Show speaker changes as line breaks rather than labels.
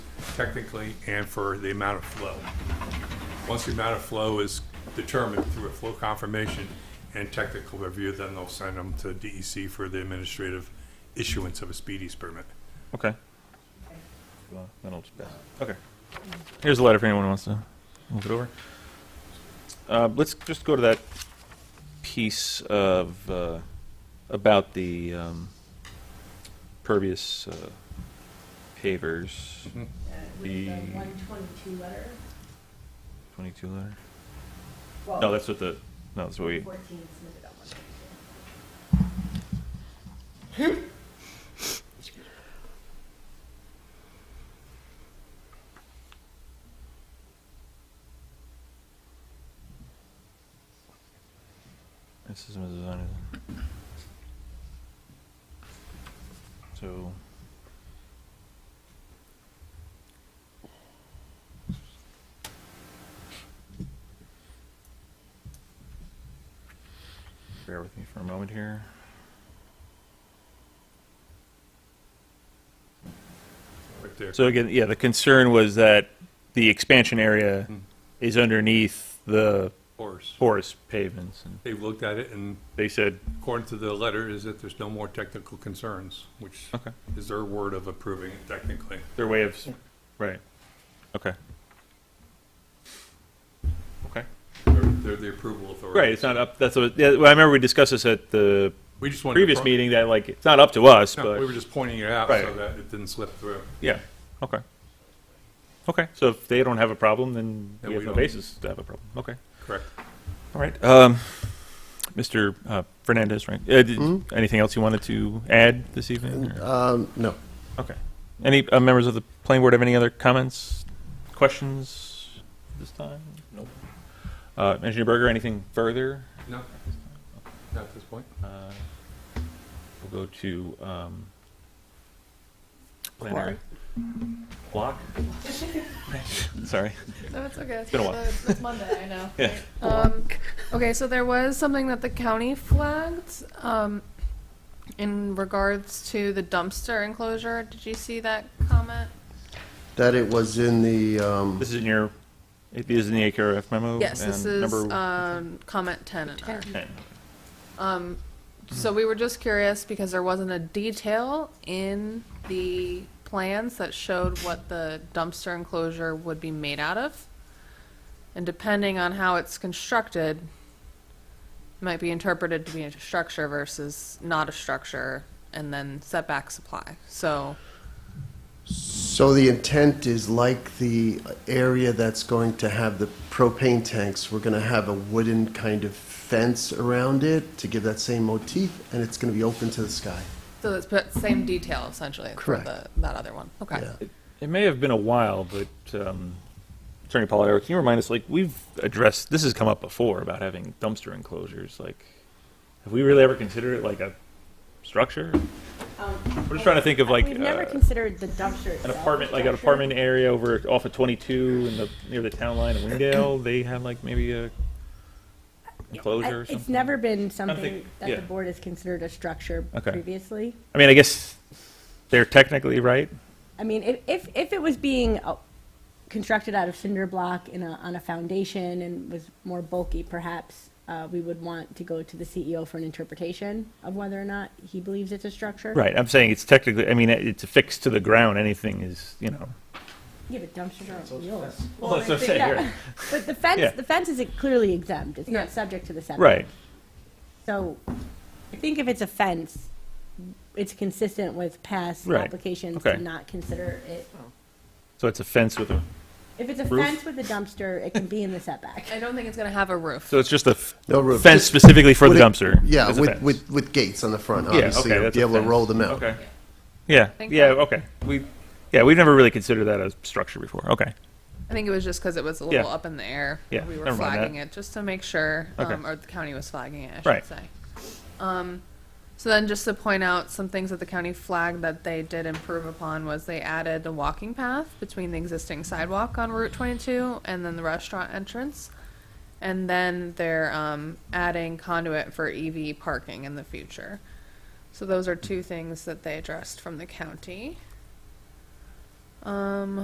technically and for the amount of flow. Once the amount of flow is determined through a flow confirmation and technical review, then they'll send them to DEC for the administrative issuance of a speedies permit.
Okay. Well, then I'll just pass. Okay. Here's a letter if anyone wants to move it over. Uh, let's just go to that piece of, uh, about the, um, pervious, uh, pavers,
Mm-hmm.
Uh, With the
The-
one twenty-two letter?
twenty-two letter.
Well,
No, that's what the, no, that's what we,
Fourteen submitted on one twenty-two.
this is Mrs. design. So. Bear with me for a moment here.
Right there.
So again, yeah, the concern was that the expansion area
Hmm.
is underneath the
Horace,
porous pavements, and
they've looked at it and
they said,
according to the letter is that there's no more technical concerns, which
okay,
is their word of approving it technically.
their way of, right, okay. Okay.
They're, they're the approval authority.
Right, it's not up, that's what, yeah, well, I remember we discussed this at the
We just wanted. to
previous
pro-
meeting, that like, it's not up to us,
No, we
but,
were just pointing it out so
Right.
that it didn't slip through.
yeah, okay. Okay, so if they don't have a problem, then
Then
we
we
have no
don't.
basis to have a problem, okay.
Correct.
All right, um, Mr. uh, Fernandez, right, uh, did- anything else you wanted to add this evening? or-
Um, no.
Okay. Any uh, members of the planning board have any other comments, questions this time? Nope. Uh, Engineer Berger, anything further?
No, not at this point.
Uh, We'll go to, um,
Quarry.
planner. Block? Sorry.
No, it's okay. It's
been a while.
It's it's Monday, I know.
Yeah.
Um, okay, so there was something that the county flagged um, in regards to the dumpster enclosure. Did you see that comment?
That it was in the, um,
This is in your, it is in the AKRF memo?
Yes, this
Oh, and
is
number
um, comment 10 in our.
10.
Um, so we were just curious because there wasn't a detail in the plans that showed what the dumpster enclosure would be made out of. And depending on how it's constructed, might be interpreted to be a structure versus not a structure, and then setbacks apply. So,
so the intent is like the area that's going to have the propane tanks, we're gonna have a wooden kind of fence around it to give that same motif, and it's gonna be open to the sky.
so it's put same detail essentially for
Correct.
the, that other one. Okay.
Yeah.
It may have been a while, but um, Attorney Polidoro, can you remind us, like, we've addressed, this has come up before about having dumpster enclosures, like, have we really ever considered it like a structure? I'm just trying to think of like
Um, We've never
uh,
considered the
an
dumpster itself.
apartment, like an
Structure.
apartment area over off of 22 in the near the town line in Wingdale. They had like maybe a
I-
enclosure or
It's
something.
never been
think-
something that
yeah.
the board has considered a structure
Okay.
previously.
I mean, I guess they're technically right.
I mean, if, if, if it was being uh, constructed out of cinder block in a, on a foundation and was more bulky, perhaps, uh, we would want to go to the CEO for an interpretation of whether or not he believes it's a structure.
Right. I'm saying it's technically. I mean, it's affixed to the ground. Anything is, you know.
Yeah, but dumpsters are wheels.
Well, that's what I'm saying.
Yeah. But the
Yeah.
fence, the fence is clearly exempt. It's
Yeah.
not subject to the setback.
Right.
So I think if it's a fence, it's consistent with past
Right.
applications
Okay.
to not consider it.
So it's a fence with a.
If it's a
Roof?
fence with a dumpster, it can be in the setback.
I don't think it's going to have a roof.
So it's just a f-
No roof.
fence
Just-
specifically for the
Would it-
dumpster.
Yeah,
It's a
with,
fence.
with, with gates on the front,
Yeah,
obviously,
okay,
you'll
that's
be
a
able to
fence.
roll them out.
Okay. Yeah.
Think
Yeah.
about it.
Okay. We. Yeah, we've never really considered that a structure before. Okay.
I think it was just because it was a little
Yeah.
up in the air.
Yeah,
we were
never mind that.
flagging it just to make sure,
Okay.
um, or the county was flagging it, I should
Right.
say. Um, so then, just to point out some things that the county flagged that they did improve upon was they added a walking path between the existing sidewalk on Route 22 and then the restaurant entrance, and then they're um, adding conduit for EV parking in the future. So those are two things that they addressed from the county. Um,